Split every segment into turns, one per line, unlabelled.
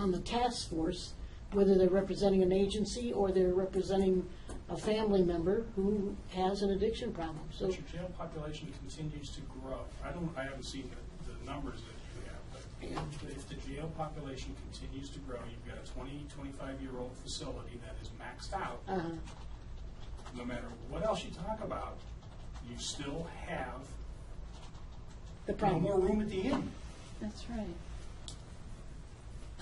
on the task force, whether they're representing an agency or they're representing a family member who has an addiction problem. So
But your jail population continues to grow. I don't, I haven't seen the, the numbers that you have, but if the jail population continues to grow, you've got a 20, 25-year-old facility that is maxed out,
uh,
no matter what else you talk about, you still have
the
more
problem,
room at the end.
That's right.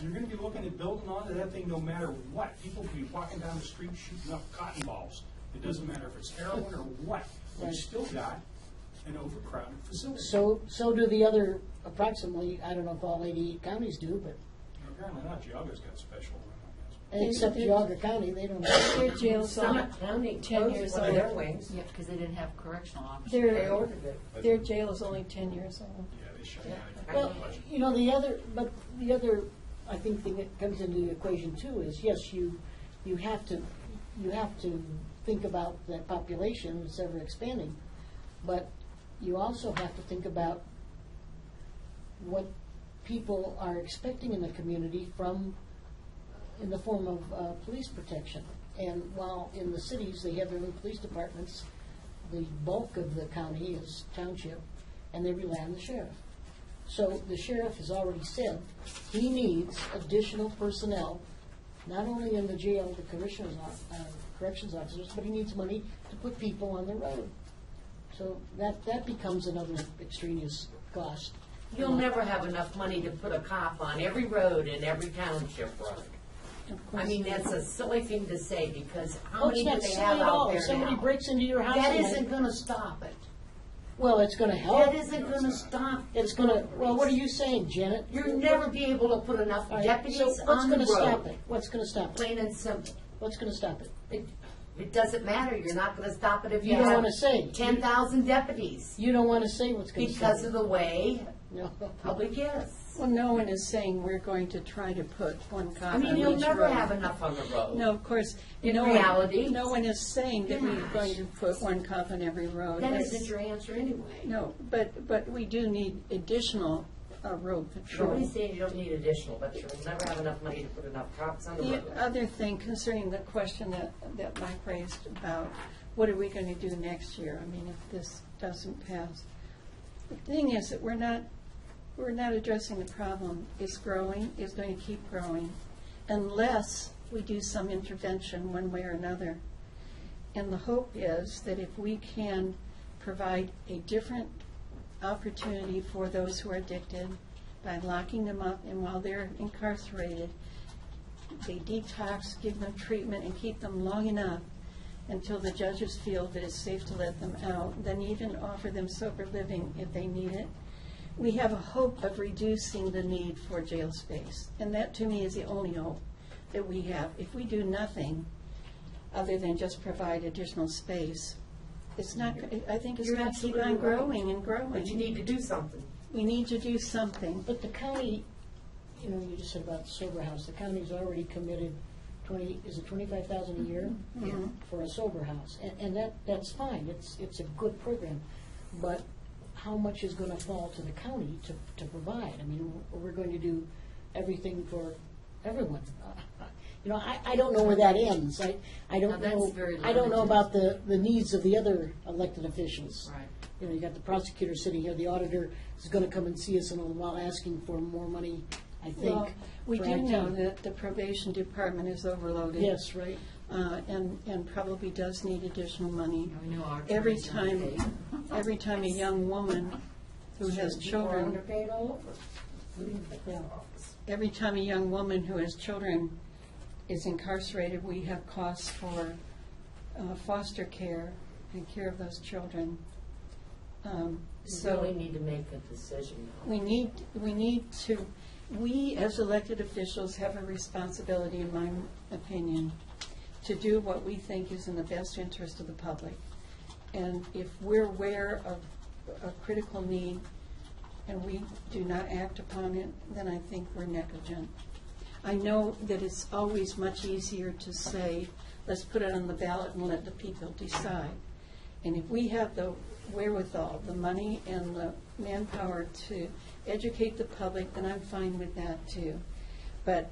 You're gonna be looking at building onto that thing no matter what. People can be walking down the street shooting up cotton balls. It doesn't matter if it's heroin or what.
Right.
You've still got an overcrowded facility.
so, so do the other approximately, I don't know if all 88 counties do, but
Apparently not, Geogga's got special room, I guess.
except
They- they-
Geauga County, they don't. have-
Their jail's not,
Summit County
ten
closed
years
one of their
old.
wings.
Yeah, because they didn't have correctional officers.
They
their,
ordered it.
their jail is only ten years old.
Yeah, they shut down.
I
Well,
know.
you know, the other, but the other, I think, thing that comes into the equation too is, yes, you, you have to, you have to think about that population that's ever expanding, but you also have to think about what people are expecting in the community from, in the form of uh, police protection. And while in the cities, they have their own police departments, the bulk of the county is township, and they rely on the sheriff. So the sheriff has already said he needs additional personnel, not only in the jail, the commissioners, uh, corrections officers, but he needs money to put people on the road. So that, that becomes another extraneous cost.
You'll never have enough money to put a cop on every road in every township road. I mean, that's a silly thing to say, because how
Oh, it's
many do
not
they
silly
have
at all.
out
If
there
somebody
now?
breaks into your house.
That
and-
isn't gonna stop it.
Well, it's gonna help.
That isn't gonna stop.
It's gonna, well, what are you saying, Janet?
You'll never be able to put enough
All right,
deputies
so what's
on the
gonna stop
road.
it? What's gonna stop it?
Plain and simple.
What's gonna stop it?
It, it doesn't matter, you're not gonna stop it if
You
you
don't
have
wanna say.
ten thousand deputies,
You don't wanna say what's gonna stop
because
it.
of the way
No.
public is.
Well, no one is saying we're going to try to put one cop
I
on
mean,
each road.
you'll never have enough on the road.
No, of course,
In
no
reality.
one, no one is saying that we're
Gosh.
going to put one cop on every road.
That
That's-
isn't your answer anyway.
No, but, but we do need additional uh, road patrol.
Nobody's saying you don't need additional, but you'll never have enough money to put enough cops on the
The
road.
other thing concerning the question that, that Mike raised about what are we going to do next year? I mean, if this doesn't pass. The thing is that we're not, we're not addressing the problem. It's growing, it's going to keep growing unless we do some intervention one way or another. And the hope is that if we can provide a different opportunity for those who are addicted by locking them up and while they're incarcerated, they detox, give them treatment, and keep them long enough until the judges feel that it's safe to let them out, then even offer them sober living if they need it. We have a hope of reducing the need for jail space, and that to me is the only hope that we have. If we do nothing other than just provide additional space, it's not, I think it's
You're
going to keep
absolutely
on
right.
growing and growing.
But you need to do something.
We need to do something.
But the county, you know, you just said about sober house, the county's already committed twenty, is it twenty-five thousand a year?
Mm-hmm.
For a sober house, and, and that, that's fine, it's, it's a good program, but how much is gonna fall to the county to, to provide? I mean, we're going to do everything for everyone. You know, I, I don't know where that ends, I, I don't
Now,
know.
that's very
I don't know
limited.
about the, the needs of the other elected officials
Right.
you know, you got the prosecutor sitting here, the auditor is gonna come and see us in a little while asking for more money, I
Well,
think.
we
for
do
IT.
know that the probation department is overloaded.
Yes, right.
uh, and, and probably does need additional money.
We know our
Every
attorneys
time,
underpaid.
every time a young woman who has
People are
children,
underpaid all over.
Yeah.
every time a young woman who has children is incarcerated, we have costs for uh, foster care and care of those children. Um,
You
So
really need to make a decision now.
we need, we need to, we as elected officials have a responsibility, in my opinion, to do what we think is in the best interest of the public. And if we're aware of a critical need and we do not act upon it, then I think we're negligent. I know that it's always much easier to say, let's put it on the ballot and let the people decide. And if we have the wherewithal, the money and the manpower to educate the public, then I'm fine with that too. But